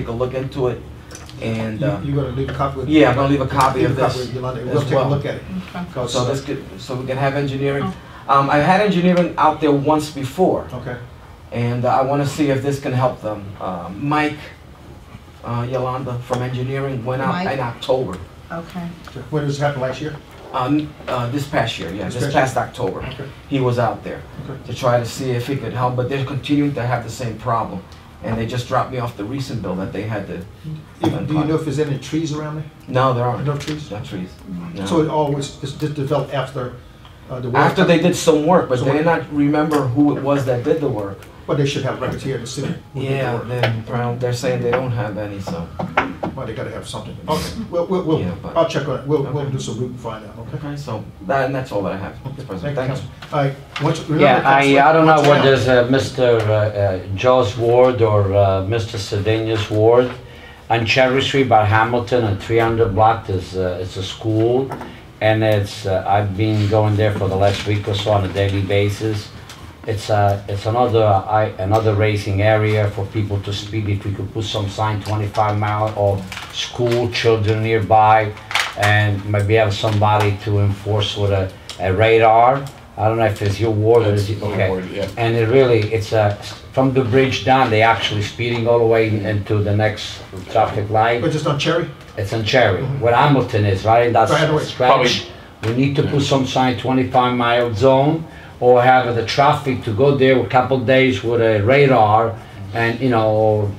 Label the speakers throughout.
Speaker 1: take a look into it, and, uh,
Speaker 2: You're gonna leave a copy? with-
Speaker 1: yeah, I'm gonna leave a copy
Speaker 2: leave
Speaker 1: of
Speaker 2: a copy
Speaker 1: this
Speaker 2: with Yolanda, and
Speaker 1: as
Speaker 2: We'll take a
Speaker 1: well.
Speaker 2: look at it.
Speaker 3: Okay.
Speaker 2: 'cause,
Speaker 1: so
Speaker 2: uh,
Speaker 1: this could, so we can have engineering. Um, I had engineering out there once before,
Speaker 2: Okay,
Speaker 1: and uh, I wanna see if this can help them. Uh, Mike, uh, Yolanda from engineering went out
Speaker 3: Mike?
Speaker 1: in October,
Speaker 3: Okay.
Speaker 2: when this happened last year?
Speaker 1: uh, n- uh, this past year, yeah,
Speaker 2: This
Speaker 1: this
Speaker 2: past
Speaker 1: past October.
Speaker 2: Okay.
Speaker 1: He was out there
Speaker 2: Okay.
Speaker 1: to try to see if he could help, but they're continuing to have the same problem. And they just dropped me off the recent bill that they had to,
Speaker 2: If- Do you know if there's any trees around there?
Speaker 1: no, there aren't,
Speaker 2: No trees?
Speaker 1: no trees. no.
Speaker 2: So it always, it's just developed after uh, the work?
Speaker 1: After they did some work, but
Speaker 2: So
Speaker 1: they
Speaker 2: what-
Speaker 1: did not remember who it was that did the work.
Speaker 2: But they should have records here in the city. who did the
Speaker 1: Yeah,
Speaker 2: work.
Speaker 1: they're, well, they're saying they don't have any, so.
Speaker 2: Well, they gotta have something. Okay, we'll, we'll, we'll-
Speaker 1: Yeah, but-
Speaker 2: I'll check on it. We'll, we'll
Speaker 1: Okay.
Speaker 2: do some root and find out, okay?
Speaker 1: Okay, so, that, and that's all that I have, Mr. President.
Speaker 2: Thank you,
Speaker 1: Thanks.
Speaker 2: Council. All right, once- remember,
Speaker 4: Yeah, I,
Speaker 2: Councilman,
Speaker 4: I don't know
Speaker 2: once
Speaker 4: what
Speaker 2: now-
Speaker 4: is uh, Mr. uh, uh, Joe's ward or uh, Mr. Sedanius ward. On Cherry Street by Hamilton at 300 block, there's, uh, it's a school. And it's, uh, I've been going there for the last week or so on a daily basis. It's a, it's another, I, another racing area for people to speed. If we could put some sign 25 mile or school children nearby and maybe have somebody to enforce with a, a radar. I don't know if it's your ward or is it, okay. And it really, it's a, from the bridge down, they actually speeding all the way into the next traffic
Speaker 2: But
Speaker 4: light.
Speaker 2: just on Cherry?
Speaker 4: It's on Cherry, where Hamilton is, right in that
Speaker 2: Right away.
Speaker 4: stretch. We need to put some sign twenty-five mile zone or have the traffic to go there a couple days with a radar and, you know,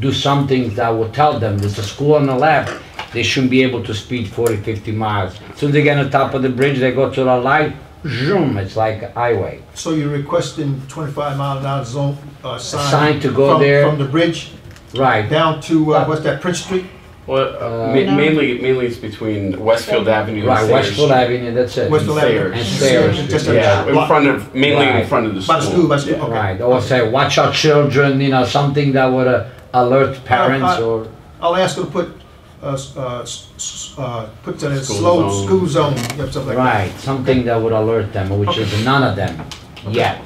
Speaker 4: do something that will tell them, there's a school on the left, they shouldn't be able to speed 40, 50 miles. Soon they get on top of the bridge, they go to the light, zoom, it's like a highway.
Speaker 2: So you're requesting twenty-five mile an hour zone, uh, sign?
Speaker 4: sign to go
Speaker 2: from-
Speaker 4: there.
Speaker 2: From the bridge
Speaker 4: Right,
Speaker 2: down to, uh, what's that, Prince Street?
Speaker 5: Well, uh, ma-
Speaker 3: No.
Speaker 5: mainly, mainly it's between Westfield Avenue
Speaker 4: Right,
Speaker 5: and Sayers.
Speaker 4: Westfield Avenue, that's it.
Speaker 2: Westfield Avenue.
Speaker 5: Sayers. And
Speaker 4: Sayers.
Speaker 2: Just a
Speaker 5: Yeah, in
Speaker 2: block-
Speaker 5: front of, mainly in
Speaker 4: Right.
Speaker 5: front of the
Speaker 2: By
Speaker 5: school.
Speaker 2: the school, by the school,
Speaker 5: Yeah.
Speaker 2: okay.
Speaker 4: Right, or say, watch our children, you know, something that would uh, alert parents
Speaker 2: I-
Speaker 4: or,
Speaker 2: I'll ask her to put, uh, s- uh, s- s- uh, put that in
Speaker 5: School
Speaker 2: slow,
Speaker 5: zone.
Speaker 2: school zone, you know, something like that.
Speaker 4: right, something that would alert them, which is none of them yet.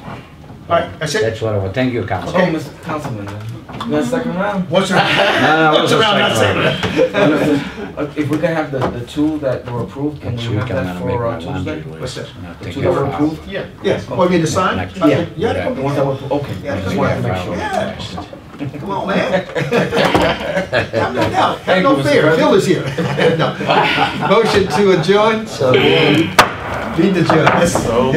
Speaker 2: All right, that's it.
Speaker 4: That's what I want, thank you,
Speaker 1: Oh,
Speaker 4: council.
Speaker 2: Okay.
Speaker 1: Mr. Councilman, uh, the second round?
Speaker 2: Once, around-
Speaker 4: No, no, it
Speaker 2: once
Speaker 4: was a
Speaker 2: around, that's
Speaker 4: strike
Speaker 2: it.
Speaker 4: round.
Speaker 1: Uh, If we can have the, the two that were approved, can we
Speaker 4: Next week,
Speaker 1: have
Speaker 4: I'm
Speaker 1: that
Speaker 4: gonna make
Speaker 1: for
Speaker 4: my
Speaker 1: uh, Tuesday?
Speaker 4: laundry
Speaker 2: What's
Speaker 4: list.
Speaker 2: that?
Speaker 4: and I'll
Speaker 1: The
Speaker 4: take
Speaker 1: two
Speaker 4: it
Speaker 1: that were
Speaker 4: for-
Speaker 1: approved?
Speaker 2: Yeah, yeah, oh, you mean the sign?
Speaker 4: Next.
Speaker 2: Okay,
Speaker 4: Yeah.
Speaker 2: Yeah,
Speaker 1: The
Speaker 2: come on.
Speaker 1: ones that were, okay, I just wanted to make sure.
Speaker 2: Yeah. come on, man. Have no doubt, have
Speaker 1: Thank you,
Speaker 2: no
Speaker 1: Mr.
Speaker 2: fear,
Speaker 1: President.
Speaker 2: Bill is here. No. Motion to adjourn,
Speaker 4: So,
Speaker 2: be the judge.